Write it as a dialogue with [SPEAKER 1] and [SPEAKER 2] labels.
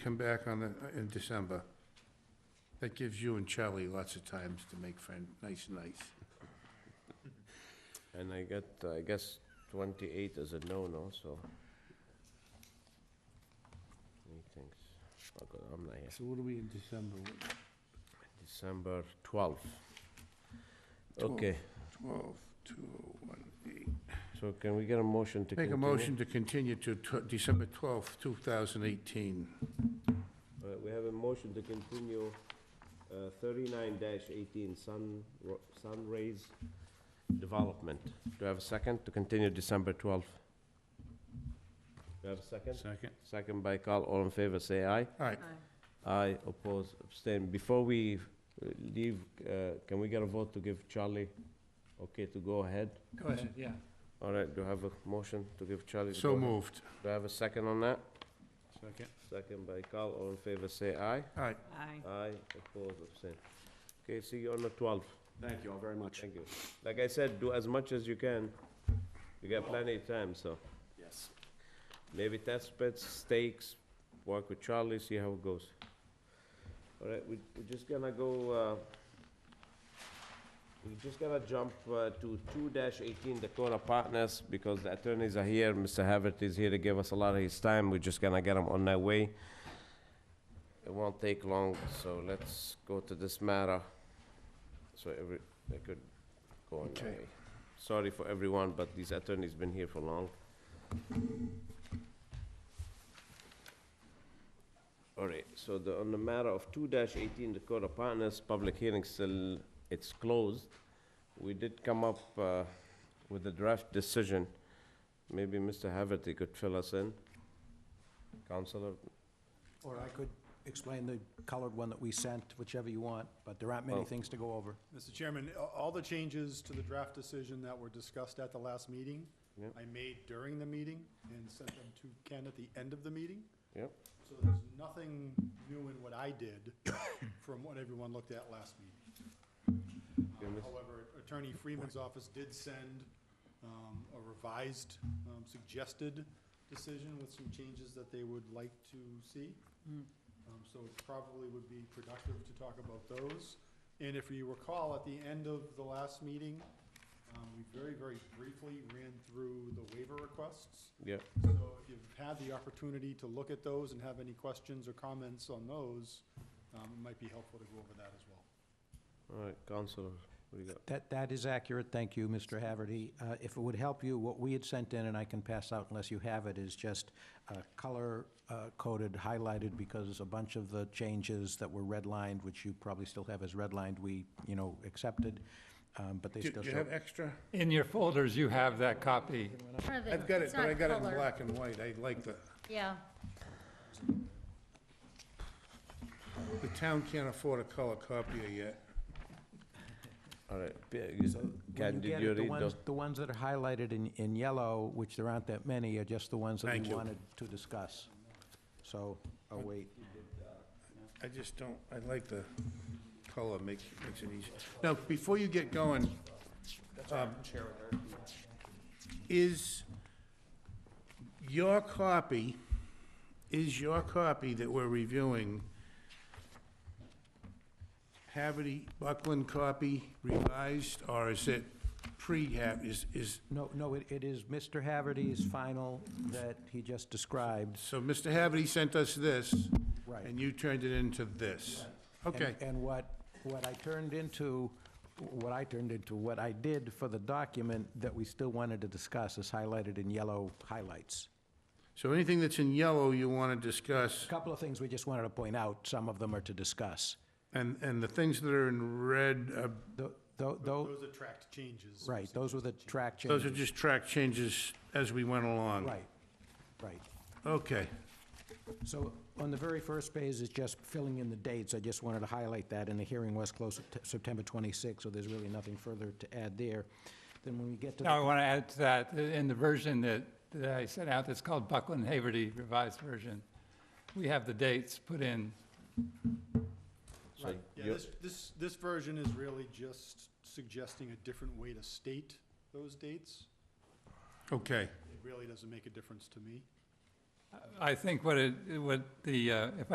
[SPEAKER 1] come back on the, in December. That gives you and Charlie lots of times to make friend, nice, nice.
[SPEAKER 2] And I got, I guess 28 is a no-no, so. Meetings, Oh, God, I'm not here.
[SPEAKER 1] So what are we in December? What-
[SPEAKER 2] December 12th.
[SPEAKER 1] Twelve.
[SPEAKER 2] Okay,
[SPEAKER 1] Twelve, two, oh, one, eight.
[SPEAKER 2] so can we get a motion to
[SPEAKER 1] Make
[SPEAKER 2] continue?
[SPEAKER 1] a motion to continue to tw- December twelfth, two thousand eighteen.
[SPEAKER 2] All right, we have a motion to continue uh, 39-18 Sun Ro- Sunrays Development. Do I have a second to continue December 12th? Do I have a second?
[SPEAKER 3] Second.
[SPEAKER 2] Second by Carl, all in favor, say aye.
[SPEAKER 1] All right,
[SPEAKER 2] Aye, oppose, abstain. Before we uh, leave, uh, can we get a vote to give Charlie okay to go ahead?
[SPEAKER 1] go ahead.
[SPEAKER 3] Yeah.
[SPEAKER 2] All right, do I have a motion to give Charlie? to go
[SPEAKER 1] So
[SPEAKER 2] ahead?
[SPEAKER 1] moved.
[SPEAKER 2] Do I have a second on that?
[SPEAKER 3] Second.
[SPEAKER 2] Second by Carl, all in favor, say aye.
[SPEAKER 1] All right,
[SPEAKER 4] Aye.
[SPEAKER 2] Aye, oppose, abstain. Okay, see you on the 12th.
[SPEAKER 3] Thank you all very much.
[SPEAKER 2] Thank you. Like I said, do as much as you can. You got plenty of time, so
[SPEAKER 3] Yes.
[SPEAKER 2] maybe test pits, stakes, work with Charlie, see how it goes. All right, we, we're just gonna go, uh, we're just gonna jump uh, to two eighteen Dakota Partners, because the attorneys are here, Mr. Havert is here to give us a lot of his time, we're just gonna get him on their way. It won't take long, so let's go to this matter, so every, they could go on their
[SPEAKER 1] Okay.
[SPEAKER 2] way. Sorry for everyone, but these attorneys been here for long. All right, so the, on the matter of two eighteen Dakota Partners, public hearing still, it's closed. We did come up uh, with a draft decision. Maybe Mr. Haverty could fill us in. Counselor,
[SPEAKER 5] Or I could explain the colored one that we sent, whichever you want, but there aren't
[SPEAKER 2] Oh.
[SPEAKER 5] many things to go over.
[SPEAKER 6] Mr. Chairman, a- all the changes to the draft decision that were discussed at the last meeting,
[SPEAKER 2] Yep.
[SPEAKER 6] I made during the meeting and sent them to Ken at the end of the meeting.
[SPEAKER 2] Yep.
[SPEAKER 6] So there's nothing new in what I did from what everyone looked at last meeting.
[SPEAKER 2] Okay,
[SPEAKER 6] Um,
[SPEAKER 2] Miss-
[SPEAKER 6] However, Attorney Freeman's office did send um, a revised, um, suggested decision with some changes that they would like to see. Um, So it probably would be productive to talk about those. And if you recall, at the end of the last meeting, um, we very, very briefly ran through the waiver requests.
[SPEAKER 2] yeah,
[SPEAKER 6] So if you've had the opportunity to look at those and have any questions or comments on those, um, it might be helpful to go over that as well.
[SPEAKER 2] all right, Counselor, what do you got?
[SPEAKER 5] That, that is accurate, thank you, Mr. Haverty. Uh, If it would help you, what we had sent in, and I can pass out unless you have it, is just uh, color uh, coded, highlighted, because a bunch of the changes that were redlined, which you probably still have as redlined, we, you know, accepted, um, but they
[SPEAKER 1] Do
[SPEAKER 5] still
[SPEAKER 1] do you
[SPEAKER 5] show.
[SPEAKER 1] have extra?
[SPEAKER 3] In your folders, you have that copy.
[SPEAKER 1] I've got it, but I got it in black and white. I like the,
[SPEAKER 4] Yeah,
[SPEAKER 1] the town can't afford a color copier yet.
[SPEAKER 2] All right, yeah, you-
[SPEAKER 5] When
[SPEAKER 2] Ken,
[SPEAKER 5] you
[SPEAKER 2] did
[SPEAKER 5] get
[SPEAKER 2] you
[SPEAKER 5] it, the
[SPEAKER 2] read
[SPEAKER 5] ones,
[SPEAKER 2] those?
[SPEAKER 5] the ones that are highlighted in, in yellow, which there aren't that many, are just the ones that
[SPEAKER 1] Thank
[SPEAKER 5] we
[SPEAKER 1] you.
[SPEAKER 5] wanted to discuss. So, I'll wait.
[SPEAKER 1] I just don't, I like the color, makes, makes it easy. Now, before you get going, um, is your copy, is your copy that we're reviewing Haverty Buckland copy revised, or is it pre-hab, is, is,
[SPEAKER 5] No, no, it, it is Mr. Haverty's final that he just described.
[SPEAKER 1] so Mr. Haverty sent us this?
[SPEAKER 5] Right.
[SPEAKER 1] And you turned it into this?
[SPEAKER 5] And-
[SPEAKER 1] Okay.
[SPEAKER 5] And what, what I turned into, what I turned into, what I did for the document that we still wanted to discuss is highlighted in yellow highlights.
[SPEAKER 1] So anything that's in yellow you want to
[SPEAKER 5] A
[SPEAKER 1] discuss,
[SPEAKER 5] Couple of things we just wanted to point out, some of them are to discuss.
[SPEAKER 1] and, and the things that are in red, uh, are-
[SPEAKER 5] Tho- tho- tho-
[SPEAKER 6] Those attract changes.
[SPEAKER 5] Oh. right, those were the track changes.
[SPEAKER 1] those are just track changes as we went along?
[SPEAKER 5] Right, right.
[SPEAKER 1] Okay.
[SPEAKER 5] So on the very first page is just filling in the dates. I just wanted to highlight that, and the hearing was closed Sept- September 26, so there's really nothing further to add there. Then when we get to,
[SPEAKER 3] Now, I
[SPEAKER 5] the
[SPEAKER 3] want to add to that, in the version that, that I sent out, that's called Buckland Haverty Revised Version, we have the dates put in.
[SPEAKER 2] So
[SPEAKER 6] Yeah,
[SPEAKER 2] you-
[SPEAKER 6] this, this, this version is really just suggesting a different way to state those dates.
[SPEAKER 1] Okay.
[SPEAKER 6] It really doesn't make a difference to me.
[SPEAKER 3] I think what it, what the, uh, if